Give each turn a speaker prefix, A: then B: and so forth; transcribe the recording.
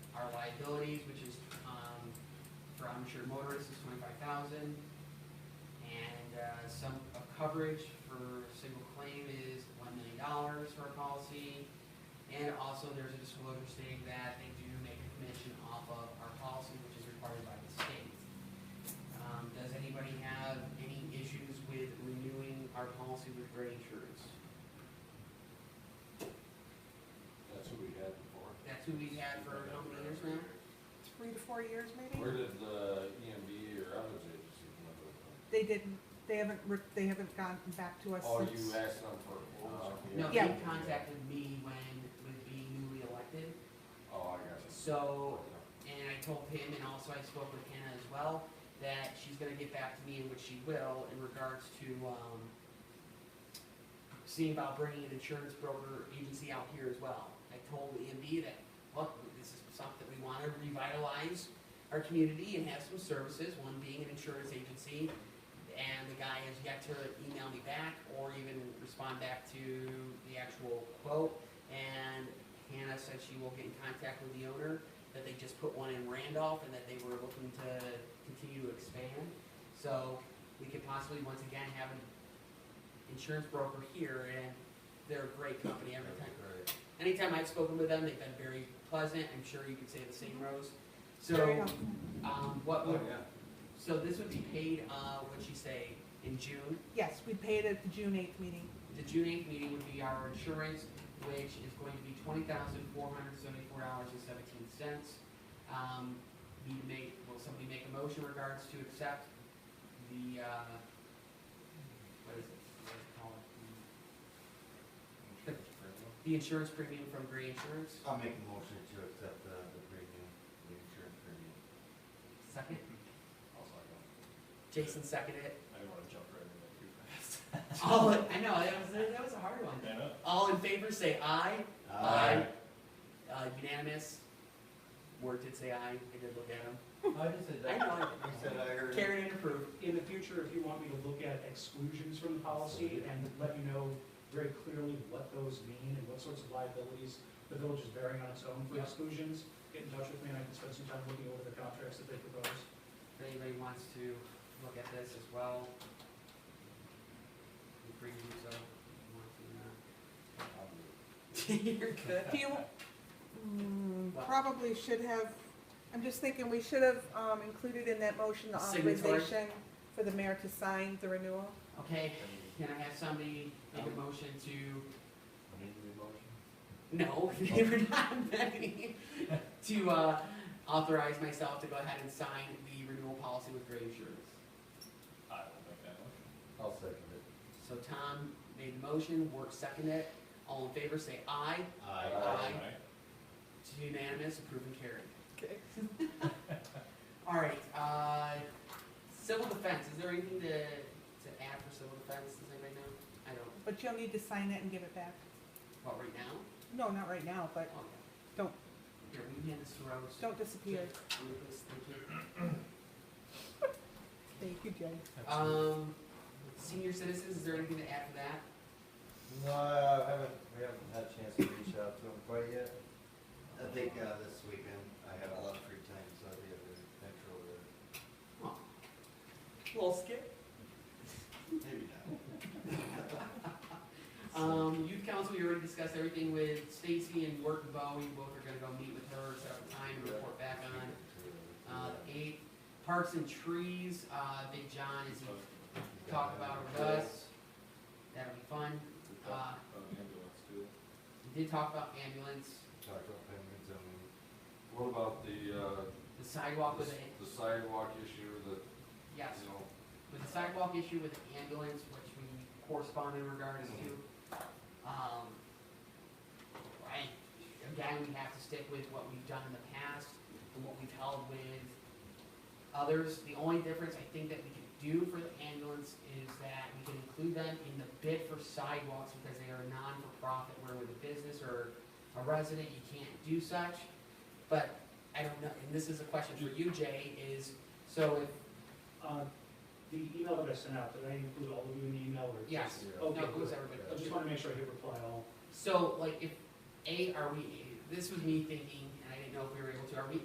A: liabilities, which is, um, for uninsured motorists is twenty-five thousand. And, uh, some, of coverage for a single claim is one million dollars for a policy. And also there's a disclosure stating that they do make a commission off of our policy, which is required by the state. Um, does anybody have any issues with renewing our policy with great insurance?
B: That's who we had before.
A: That's who we've had for how many years now?
C: three to four years maybe?
B: Where did uh, the EMB or others agency come up with them?
C: They didn't, they haven't, re- they haven't gotten back to us
B: Oh, you
C: since.
B: asked them for a quote?
A: Oh, No,
C: Yeah.
A: he contacted me when, with being newly elected,
B: Oh, I got you.
A: so, and I told him, and also I spoke with Hannah as well, that she's gonna get back to me, and which she will, in regards to, um, seeing about bringing an insurance broker agency out here as well. I told EMB that, look, this is something we wanna revitalize our community and have some services, one being an insurance agency. And the guy has yet to email me back or even respond back to the actual quote. And Hannah said she will get in contact with the owner, that they just put one in Randolph and that they were looking to continue to expand. So we could possibly, once again, have an insurance broker here and they're a great company every time. Anytime I've spoken with them, they've been very pleasant. I'm sure you could say the same, Rose. So.
C: Very helpful.
A: Um, what
B: Oh,
A: would,
B: yeah.
A: so this would be paid, uh, what'd you say, in June?
C: Yes, we paid at the June eighth meeting.
A: The June eighth meeting would be our insurance, which is going to be twenty thousand four hundred seventy-four dollars and seventeen cents. Um, we make, will somebody make a motion regards to accept the, uh, what is it, what is it called? The insurance premium from Gray Insurance,
D: I'll make a motion to accept the, the premium, the insurance premium.
A: second,
E: Also, I don't,
A: Jason seconded it.
E: I don't wanna jump right in there too fast.
A: All, in- Oh, I know, that was, that was a hard one.
E: I know.
A: All in favor, say aye. Aye. Uh, unanimous. Word did say aye, I did look at him.
D: I just said
A: I know,
D: I said I
A: I-
D: heard.
A: carried and approved.
F: in the future, if you want me to look at exclusions from the policy and let you know very clearly what those mean and what sorts of liabilities the village is bearing on its own for
A: Yeah.
F: exclusions, get in touch with me and I can spend some time looking over the contracts that they propose.
A: If anybody wants to look at this as well. The previews of, if you want to, uh, You're good.
C: Do you, mm,
A: Wow.
C: probably should have, I'm just thinking, we should have, um, included in that motion the
A: Signatory.
C: authorization for the mayor to sign the renewal.
A: Okay, can I have somebody make a motion to,
D: Need a motion?
A: no, we're not, ready. to, uh, authorize myself to go ahead and sign the renewal policy with Gray Insurance.
E: I will make that one.
D: I'll second it.
A: So Tom made the motion, Work seconded it. All in favor, say aye. Aye.
E: Aye.
A: It's unanimous, approved and carried.
C: Okay.
A: All right, uh, civil defense, is there anything to, to add for civil defense, does anybody know? I don't,
C: But you'll need to sign it and give it back.
A: what, right now?
C: No, not right now, but
A: Okay.
C: Don't.
A: Here, we can hand this to Rose.
C: don't disappear.
A: Can we please- thank you.
C: Thank you, Jay.
A: Um, senior citizens, is there anything to add to that?
D: No, I haven't, we haven't had a chance to reach out to him quite yet. I think, uh, this weekend, I have a lot of free time, so I'll be able to control
A: Oh.
D: it.
A: Little skip.
D: Maybe not.
A: Um, youth council, we already discussed everything with Stacy and York and Bowie, both are gonna go meet with her, set up a time, and report back on. Uh, eight, parks and trees, uh, Big John is, talked about with us, that'll be fun.
E: We
A: Uh,
E: talked about ambulance too.
A: we did talk about ambulance,
D: Talked about penguins and.
B: What about the, uh,
A: the sidewalk with the,
B: the sidewalk issue that,
A: yes,
B: you know,
A: with the sidewalk issue with the ambulance, which we correspond in regards to. Um, I, again, we have to stick with what we've done in the past and what we've held with others. The only difference I think that we can do for the ambulance is that we can include them in the bid for sidewalks because they are non-for-profit, where with a business or a resident, you can't do such. But I don't know, and this is a question for you, Jay, is, so if
F: Uh, The email that I sent out, did I include all of you in the email or?
A: Yes.
F: just-
D: Yeah.
A: No,
F: Okay,
A: it was
F: good.
A: everybody.
F: I just wanna make sure I hit reply all.
A: So, like, if, A, are we, this was me thinking, and I didn't know if we were able to, are we